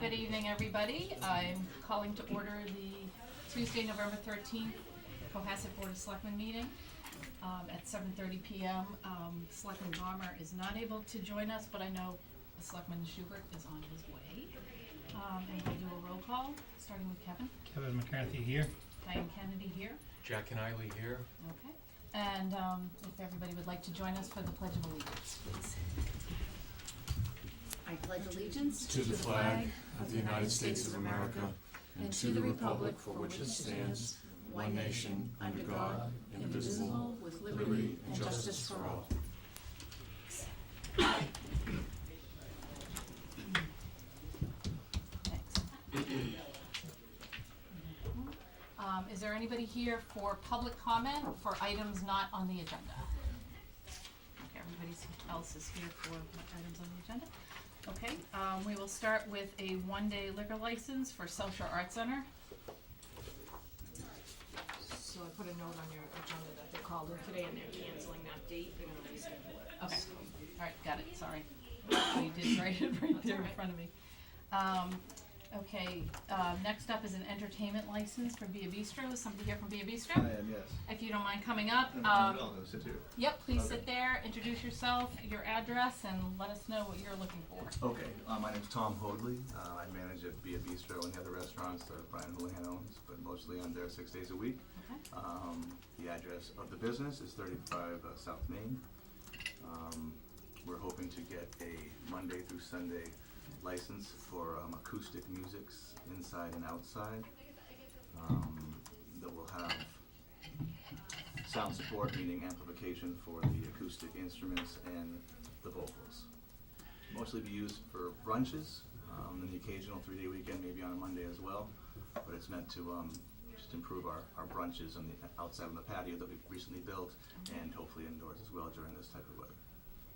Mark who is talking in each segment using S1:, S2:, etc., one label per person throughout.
S1: Good evening, everybody. I'm calling to order the Tuesday, November thirteenth, Cohasset Board of Selectmen meeting um, at seven thirty PM. Um, Selectman Bomber is not able to join us, but I know Selectman Schubert is on his way. Um, And we'll do a roll call, starting with Kevin.
S2: Kevin McCarthy here.
S1: Diane Kennedy here,
S3: Jack and Eily here.
S1: okay? And um, if everybody would like to join us for the Pledge of Allegiance, please.
S4: I pledge allegiance
S5: To the flag of the United States of America and to the republic for which it stands, one nation, under God, indivisible,
S4: with
S5: liberty and justice for all.
S1: Thanks. Um, is there anybody here for public comment for items not on the agenda? Okay, everybody else is here for items on the agenda. Okay, um, we will start with a one-day liquor license for South Shore Arts Center.
S4: So I put a note on your agenda that they called in today and they're canceling that date, they're gonna reschedule it.
S1: Okay, all right, got it, sorry. I did write it right there in front of me. Um, okay, uh, next up is an entertainment license for Via Bistro. Is somebody here from Via
S6: I
S1: Bistro?
S6: am, yes.
S1: If you don't mind coming up,
S6: And I'm
S1: um,
S6: going to sit here.
S1: yep, please
S6: Okay.
S1: sit there, introduce yourself, your address, and let us know what you're looking for.
S6: Okay, uh, my name's Tom Hoadley. Uh, I manage at Be a Bistro and the other restaurants that Brian Houlihan owns, but mostly I'm there six days a week.
S1: Okay,
S6: Um, the address of the business is 35 uh, South Main. Um, we're hoping to get a Monday through Sunday license for um, acoustic musics inside and outside. Um, that will have sound support, meaning amplification for the acoustic instruments and the vocals. Mostly be used for brunches um, and the occasional three-day weekend, maybe on a Monday as well. But it's meant to um, just improve our, our brunches on the outside on the patio that we've recently built, and hopefully indoors as well during this type of weather.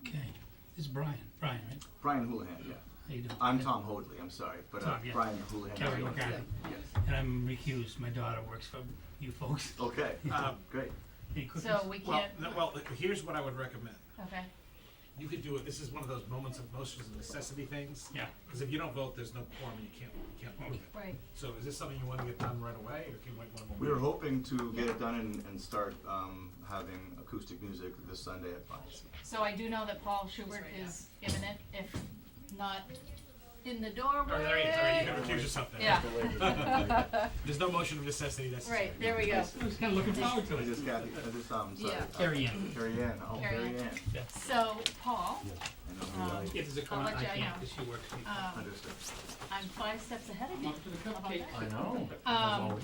S2: Okay. This is Brian. Brian, right?
S6: Brian Houlihan, yeah.
S2: How you doing?
S6: I'm Tom Hoadley, I'm sorry, but uh,
S2: Tom, yeah.
S6: Brian Houlihan. is
S2: Kevin
S6: the owner.
S2: McCarthy.
S6: Yes. Oh.
S2: And I'm recused. My daughter works for you folks.
S6: Okay,
S2: Uh,
S6: great.
S2: Any cookies?
S1: so we
S7: Well,
S1: can't,
S7: no, well, here's what I would recommend.
S1: okay,
S7: You could do it, this is one of those moments of most of necessity things.
S2: Yeah.
S7: Because if you don't vote, there's no quorum, and you can't, you can't vote it.
S1: right,
S7: So is this something you want to get done right away, or can you wait one more?
S6: We were
S7: meeting?
S6: hoping to get it done and, and start um, having acoustic music this Sunday at five.
S1: so I do know that Paul Schubert is imminent, if not in the doorway.
S7: All right, all right, all right, you can recuse yourself then.
S1: Yeah.
S7: There's no motion of necessity, that's.
S1: Right, there we go.
S2: I was kind of looking forward to
S6: I
S2: it.
S6: just Kathy, I just, um, sorry.
S1: Yeah.
S6: uh,
S2: Carrie Ann.
S6: Carrie Ann, oh,
S1: Carrie
S6: Carrie
S1: Ann.
S6: Ann.
S1: So, Paul,
S6: I know who you
S1: Um,
S6: like.
S7: If there's a
S1: I'll let
S7: comment, I
S1: you
S7: can't,
S1: know.
S7: because she works.
S1: um,
S6: Understood.
S1: I'm five steps ahead of you. How about that?
S3: I know.
S1: Um,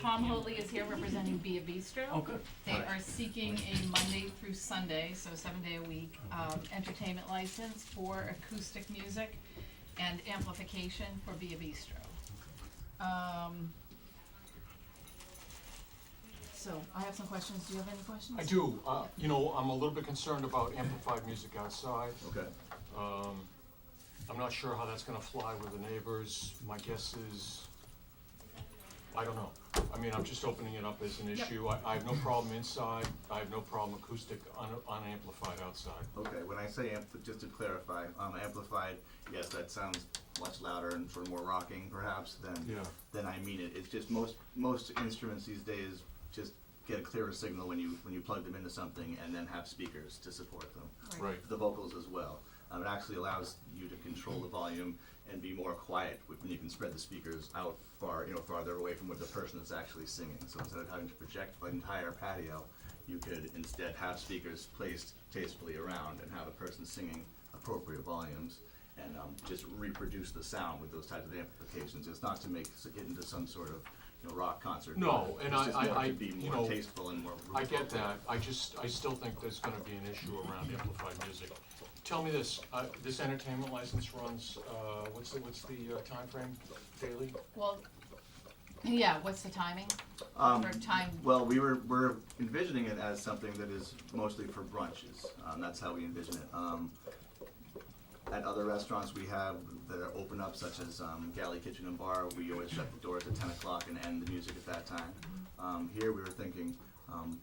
S1: Tom Hoadley is here representing Via Bistro.
S3: Oh, good.
S1: They are seeking a Monday through Sunday, so seven day a week,
S5: Uh-huh.
S1: um, entertainment license for acoustic music and amplification for Via Bistro. Um, so I have some questions. Do you have any questions?
S5: I do, uh, you know, I'm a little bit concerned about amplified music outside.
S6: Okay.
S5: Um, I'm not sure how that's gonna fly with the neighbors. My guess is, I don't know. I mean, I'm just opening it up as an
S1: Yep.
S5: issue. I, I have no problem inside. I have no problem acoustic un- unamplified outside.
S6: Okay, when I say ampl- just to clarify, um, amplified, yes, that sounds much louder and for more rocking perhaps than
S5: Yeah.
S6: than I mean it. It's just most most instruments these days just get a clearer signal when you when you plug them into something and then have speakers to support them.
S5: Right.
S6: The vocals as well. Um, it actually allows you to control the volume and be more quiet wh- when you can spread the speakers out far, you know, farther away from where the person is actually singing. So instead of having to project an entire patio, you could instead have speakers placed tastefully around and have a person singing appropriate volumes and um, just reproduce the sound with those types of amplifications. It's not to make s- it into some sort of you know, rock concert.
S5: No,
S6: but
S5: and
S6: it's
S5: I-
S6: just
S5: I-
S6: more
S5: I-
S6: to be
S5: you
S6: more
S5: know,
S6: tasteful and more.
S5: I get that, I just, I still think there's gonna be an issue around amplified music. Tell me this, uh, this entertainment license runs, uh, what's the, what's the uh, timeframe, daily?
S1: Well, yeah, what's the timing?
S6: Um,
S1: Or time,
S6: Well, we were, we're envisioning it as something that is mostly for brunches. Um, that's how we envision it. Um, at other restaurants we have that are open up, such as um, Galley Kitchen and Bar, we always shut the doors at ten o'clock and end the music at that time. Um, here we were thinking um,